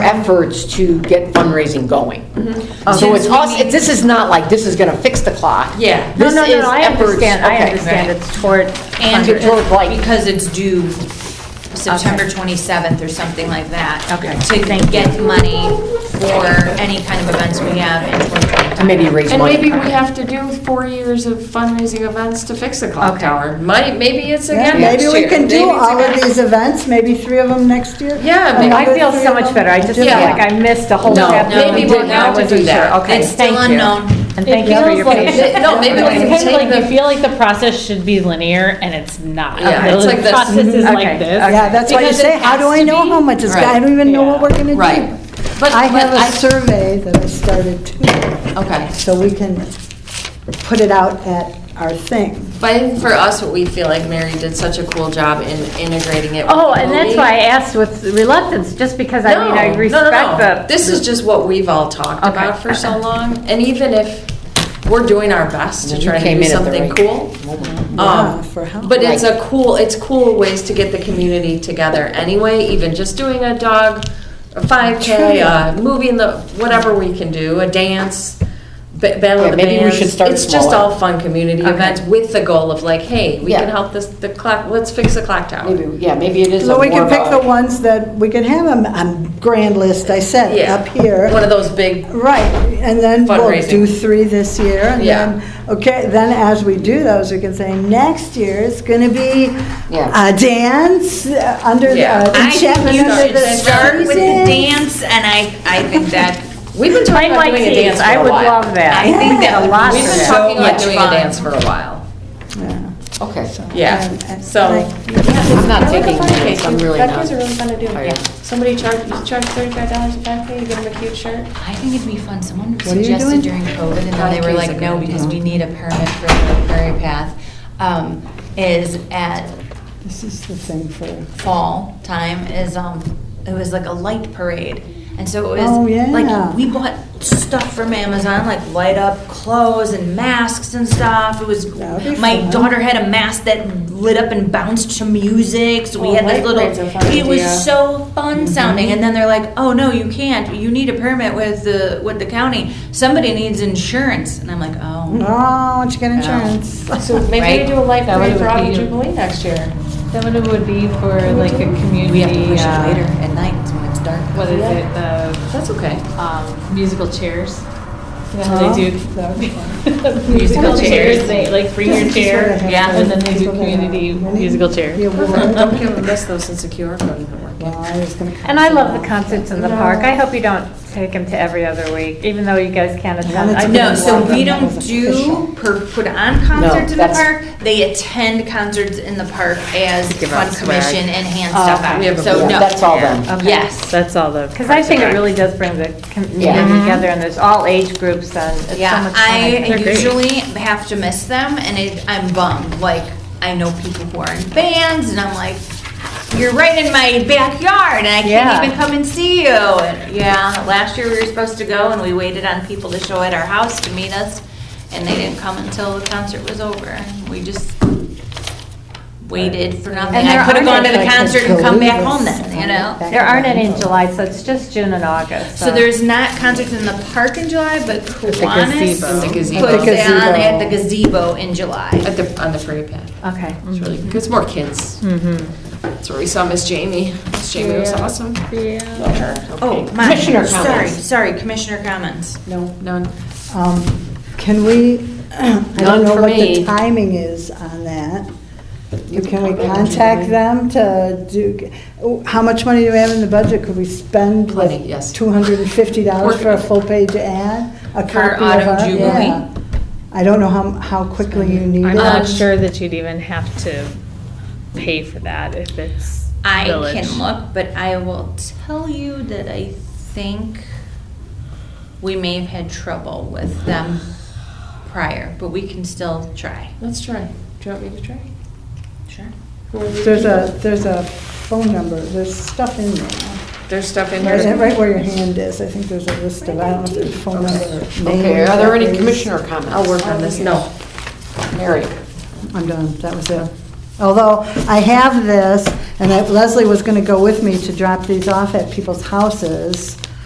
efforts to get fundraising going. So Okay. it's us, it- this is not like, this is gonna fix the clock. Yeah. This No, is No, no, no, I efforts- understand, I okay. understand it's toward And Under- toward like- because it's due September 27th or something like that. Okay, thank To you. get money for any kind of events we have in 2025. And Maybe raise And money. maybe we have to do four years of fundraising events to fix the clock Okay. tower. Might, maybe it's again Yeah, next Maybe year. we can do Maybe it's all of again- these events, maybe three of them next year? Yeah, Oh, maybe- I feel so much better, I just feel Yeah. like I missed a whole No, chapter. no, we and will didn't- not I wasn't do that. sure. Okay, It's still thank you. unknown. And It thank you for feels your like- patience. No, maybe we It's can kind of take like, the. you feel like the process should be linear, and it's not. Yeah, it's like The this. process is Okay, like this. Yeah, that's why you Because it say, how do has I to know be- how much it's, I Right. don't even know what Yeah. we're gonna do. Right. But- I but have a survey that I started, too, Okay. so we can put it out at our thing. But I think for us, what we feel like Mary did such a cool job in integrating it. with Oh, the and that's movie. why I asked with reluctance, just because I mean, I No, no, no, no. respect the. This is just what we've all talked Okay. about for so long, and even if we're doing our best to You try to came in do at the something right cool. Yeah, um, for help. But it's Right. a cool, it's cool ways to get the community together anyway, even just doing a dog, a five K, a movie in the, whatever we can do, a dance, ba- battle Yeah, of the maybe we bands. should start It's just smaller. all fun community events with the goal of like, hey, we Yeah. can help this, the clock, let's fix the clock tower. Maybe, yeah, maybe it is. a So we more can of pick a- the ones that, we can have them on grand list, I said, Yeah. up here. One of those big Right, and then we'll Fundraising. do three this year, and Yeah. then, okay, then as we do those, we can say, next year it's gonna be Yeah. a dance uh, under, uh, Yeah. I I think enchantment you under should the start with the season. dance, and I, I think that, We've been I talking about like doing a these, dance for I a would while. love that. I think that a lot We've for been that. talking about much doing a fun. dance for a while. Okay, Yeah, And- so, I'm not taking minutes, I'm really not. Oh, Five Ks are really fun to do. tired. Somebody charge, you charge thirty-five dollars a five K, you get them a cute shirt. I think it'd be fun, someone are you doing? suggested during COVID, and then they were like, no, because we need a permit for the Prairie Path, um, is at This is the thing for, fall time is um it was like a light parade and so it was Oh, yeah. like we bought stuff from amazon like light up clothes and masks and stuff it was That would be my fun. daughter had a mask that lit up and bounced to music so we Oh, had light this little parade's a fun it idea. was so fun Mm-hmm. sounding and then they're like oh no you can't you need a permit with the with the county somebody needs insurance and i'm like oh oh, once you get insurance. So maybe Right. we do a light That parade would for Autumn be- Jubilee next year. Then what it would be for Oh. like a community. we have to push uh, it later at night when it's dark What is it, the that's okay. um, musical chairs? You know how they That would be do musical chairs, they like bring your chair, Yeah. and then they do community musical chairs. Don't give them this though, since the QR code isn't working. And I love the concerts in the park, I hope you don't take them to every other week, even though you guys can't attend. that's I a know. No, good so one. we That don't was official. do, per- put on concerts in the that's- park. They attend concerts in the park as fun commission and hand Oh, stuff okay. out. We have a- So Yeah, no. that's all them. Okay. Yes. That's all the. Because I think it really does bring the community Mm-hmm. together, and there's all age groups, and it's so Yeah, much fun. I They're great. usually have to miss them and it, I'm bummed. Like, I know people who are in bands and I'm like, you're right in my backyard and I Yeah. can't even come and see you. And yeah, last year we were supposed to go and we waited on people to show at our house to meet us and they didn't come until the concert was over. We just waited for nothing. And there I could have aren't gone to the any, like, concert and come back Columbus home then, you and know? back There to aren't any in Orlando. July, so it's just June and August. So there's not concerts in the park in July, but Kiwanis gazebo. At the puts gazebo. At the it on gazebo. at the gazebo in July. At the, on the parade path. Okay. It's really, it's more kids. That's where we saw Miss Jamie. Miss Jamie was awesome. Yeah. Oh, my, Commissioner sorry, comments. sorry, commissioner comments. No, none. Um, Can we, I None don't know for what the me. timing is on that. Can we contact them to do, how much money do we have in the budget? Could we spend like Plenty, yes. $250 for a full-page ad? A copy For of Autumn our- Jubilee? yeah. I don't know how, how quickly you need it. I'm not sure that you'd even have to pay for that if it's I village. can look, but I will tell you that I think we may have had trouble with them prior, but we can still try. Let's try. Do you want me to try? Sure. There's a, there's a phone number, there's stuff in there. There's stuff in Right, here. right where your hand is, I think there's a list of, I don't know if there's phone number. or name Okay, are there any records. commissioner comments? I'll work on this. No. Mary, I'm done, that was it. Although I have this, and that Leslie was gonna go with me to drop these off at people's houses